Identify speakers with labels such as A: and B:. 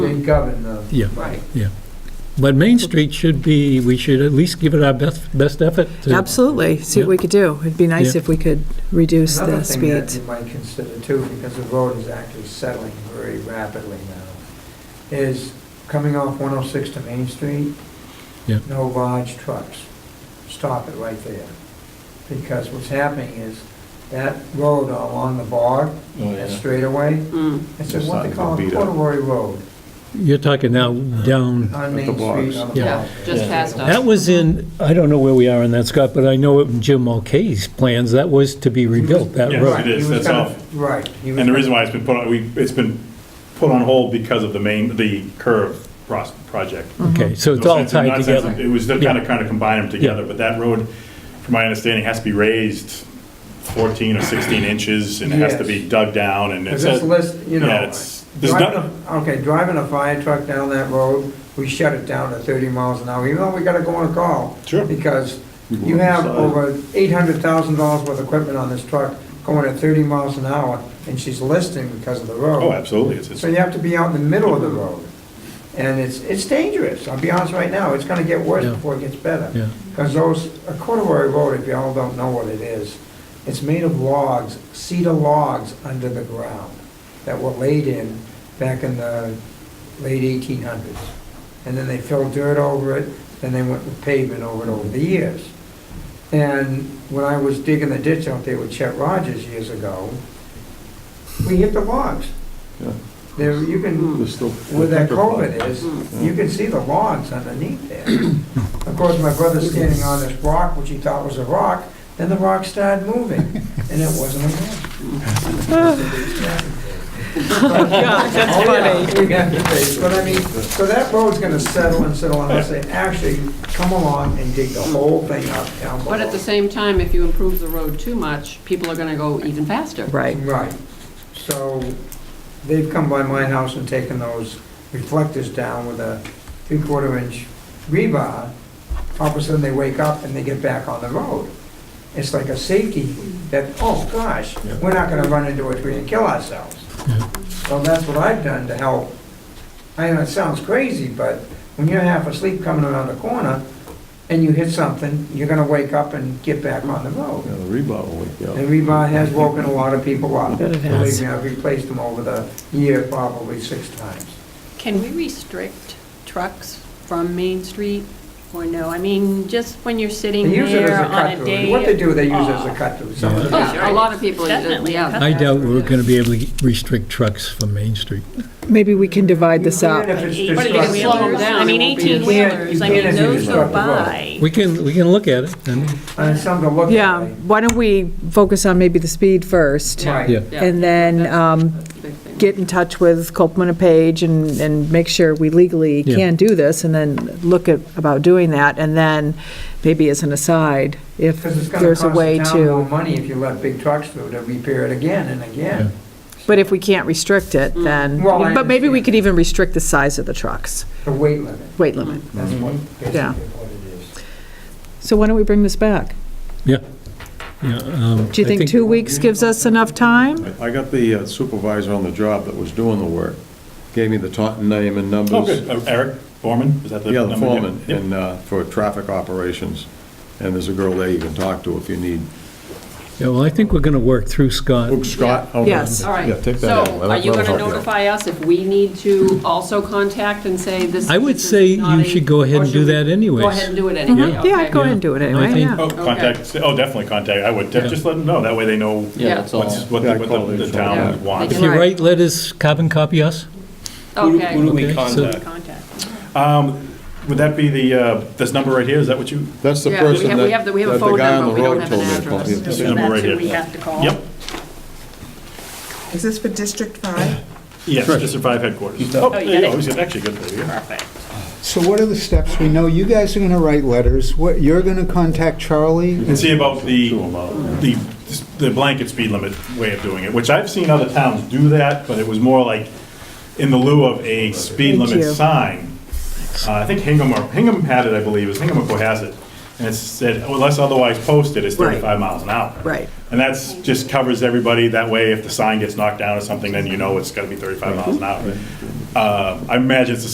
A: They govern the.
B: Yeah.
A: Right.
B: But Main Street should be, we should at least give it our best, best effort to.
C: Absolutely, see what we could do. It'd be nice
B: Yeah.
C: if we could reduce
A: Another
C: the
A: thing that
C: speed.
A: you might consider too, because the road is actually settling very rapidly now, is coming off 106 to Main Street.
B: Yeah.
A: No large trucks. Stop it right there. Because what's happening is that road along the bar,
D: Oh,
A: that straightaway,
E: Mm.
A: it's
D: It's
A: what
D: starting
A: they
D: to
A: call a
D: beat up.
A: corduroy road
B: You're talking now down,
A: on
D: the
A: Main Street.
D: blocks.
A: on the
B: Yeah.
A: block.
E: Yeah, just past us.
B: that was in, I don't know where we are in that, Scott, but I know in Jim Mulcahy's plans, that was to be rebuilt, that
D: Yes,
B: road.
D: it is.
A: He was
D: That's
A: gonna-
D: all.
A: Right. he was
D: And the
A: gonna-
D: reason why it's been put on, we, it's been put on hold because of the main, the curve pros- project.
B: Okay, so it's
D: No
B: all
D: sense in-
B: tied
D: not sense in-
B: together.
D: It was kind
B: Yeah.
D: of, kind of combine them together, but that road, from my understanding, has to be raised 14 or 16 inches, and it has to be
A: Yes.
D: dug down, and
A: Because
D: it's,
A: this
D: a-
A: list, you know,
D: yeah, it's, there's
A: driving
D: not,
A: a- okay, driving a fire truck down that road, we shut it down to 30 miles an hour, even though we gotta go on a call.
D: Sure.
A: Because
D: go
A: you
D: on the
A: have
D: side.
A: over $800,000 worth of equipment on this truck going at 30 miles an hour, and she's listing because of the road.
D: oh, absolutely, it's,
A: So
D: it's-
A: you have to be out in the middle of the road. And it's, it's dangerous, I'll be honest right now, it's gonna get worse
B: Yeah.
A: before it gets better.
B: Yeah.
A: Because those, a corduroy road, if y'all don't know what it is, it's made of logs, cedar logs under the ground that were laid in back in the late eighteen hundreds. And then they filled dirt over it, then they went with pavement over it over the years. And when I was digging the ditch out there with Chet Rogers years ago, we hit the logs.
D: Yeah.
A: There, you
E: Hmm.
A: can, where that culvert is, you can see the logs underneath there. Of course, my brother's standing on this rock, which he thought was a rock, then the rock started moving, and it wasn't a rock.
C: That's
A: Oh, yeah,
C: funny.
A: we have to face, But I mean, so that road's gonna settle and settle, and I say, actually, come along and dig the whole thing up down below.
E: But at the same time, if you improve the road too much, people are gonna go even faster.
C: Right.
A: Right, so they've come by my house and taken those reflectors down with a three-quarter inch rebar. All of a sudden, they wake up and they get back on the road. It's like a safety that, oh gosh, we're not gonna run into a tree and kill ourselves. So that's what I've done to help. I know it sounds crazy, but when you're half asleep coming around the corner and you hit something, you're gonna wake up and get back on the road.
D: the rebar will wake
A: And Rebar has woken a lot of people up.
C: That it has.
A: Believe me, I've replaced them over the year probably six times.
F: Can we restrict trucks from Main Street or no? I mean, just when you're
A: They
F: sitting
A: use it as
F: there
A: a
F: on a
A: cut-through.
F: day.
A: What they do, they use it as a
F: off.
A: cut-through.
B: Yeah.
A: Some-
E: Yeah, a lot of people, uh,
F: Definitely.
E: yeah.
B: I doubt we're going to be able to restrict trucks from Main Street.
C: Maybe we can divide this
A: You can
C: up.
A: if it's
F: Eight-
E: But if you
A: destructive.
E: slow 'em down,
F: I mean,
E: it won't be as-
F: 18 wheelers, I
A: You can't- you can't if
F: mean,
A: you
F: those go
A: disrupt the road.
F: by.
B: We can, we can look at it, and,
A: And it's something to look at.
C: Yeah, why don't we focus on maybe the speed first?
E: Yeah.
B: yeah.
A: Right.
E: Yeah.
C: And then um,
E: Big thing.
C: get in touch with Copeland and Page and, and make sure we legally
B: Yeah.
C: can do this, and then look at, about doing that, and then maybe as an aside, if
A: Because it's gonna
C: there's
A: cost
C: a way
A: the town more
C: to,
A: money if you let big trucks through to repair it again and again.
C: but if we can't restrict it, then,
A: Mm. Well, I
C: but maybe we
A: understand.
C: could even restrict the size of the trucks,
A: The weight limit,
C: weight limit.
A: that's what, basically
C: Mm-hmm. Yeah.
A: what it is.
C: So why don't we bring this back?
B: yeah, um,
C: Do you
B: I
C: think two weeks gives us enough time?
G: I got the uh, supervisor on the job that was doing the work, gave me the Taunton name and numbers.
D: Oh, good, Uh, Eric Foreman, is that the?
G: Yeah, the
D: number?
G: foreman,
D: Yeah.
G: and uh, for traffic operations, and there's a girl there you can talk to if you need.
B: Yeah, well, I think we're going to work through Scott.
G: Oh, Scott? okay.
C: Yes.
E: All right.
G: Yeah, take that out.
E: So are you going to notify us if we need to also contact and say this?
B: I would
E: this is
B: say you
E: not a-
B: should go ahead
E: or
B: and
E: should
B: do
E: we
B: that
E: Go
B: anyways?
E: ahead and do it anyway.
C: Mm-hmm. Yeah, I'd
E: okay.
C: go ahead and do it
B: I
C: anyway,
B: think-
C: yeah.
D: Oh, contact, oh, definitely contact, I would,
B: Yeah.
D: just let them know, that way they know
E: Yeah.
H: Yeah, that's all.
D: what's, what
G: Yeah,
D: the
G: I call
D: what
G: it
D: the
G: a-
E: Yeah.
D: town wants.
B: If you
C: Right.
B: write letters, carbon copy us.
H: Who do- Who do
E: Okay.
B: Okay,
H: we
B: so-
H: contact?
F: Contact.
D: Um, Would that be the, uh, this number right here, is that what you,
G: That's the
E: Yeah, we have-
G: person
E: we
G: that,
E: have
G: that
E: the- we have a
G: the
E: phone
G: guy
E: number,
G: on the
E: we don't
G: road
E: have
G: told
E: an
G: me to call
E: address.
D: this
G: you.
D: number right
F: That's
D: here?
F: who we have to call.
D: Yep,
I: Is this for District 5?
D: yes, District 5 headquarters. Oh, there you go, he's actually good, there you go.
J: So what are the steps? We know you guys are going to write letters. What, you're going to contact Charlie?
D: And see about the, the, the blanket speed limit way of doing it, which I've seen other towns do that, but it was more like in the lieu of a speed
C: Thank you.
D: limit sign. Uh, I think Hingham, or Hingham had it, I believe, is Hingham or Cohasset. And it said, unless otherwise posted, it's
C: Right.
D: 35 miles an hour.
C: Right.
D: And that's, just covers everybody, that way if the sign gets knocked down or something, then you know it's gotta be 35 miles an hour. Uh, I imagine it's the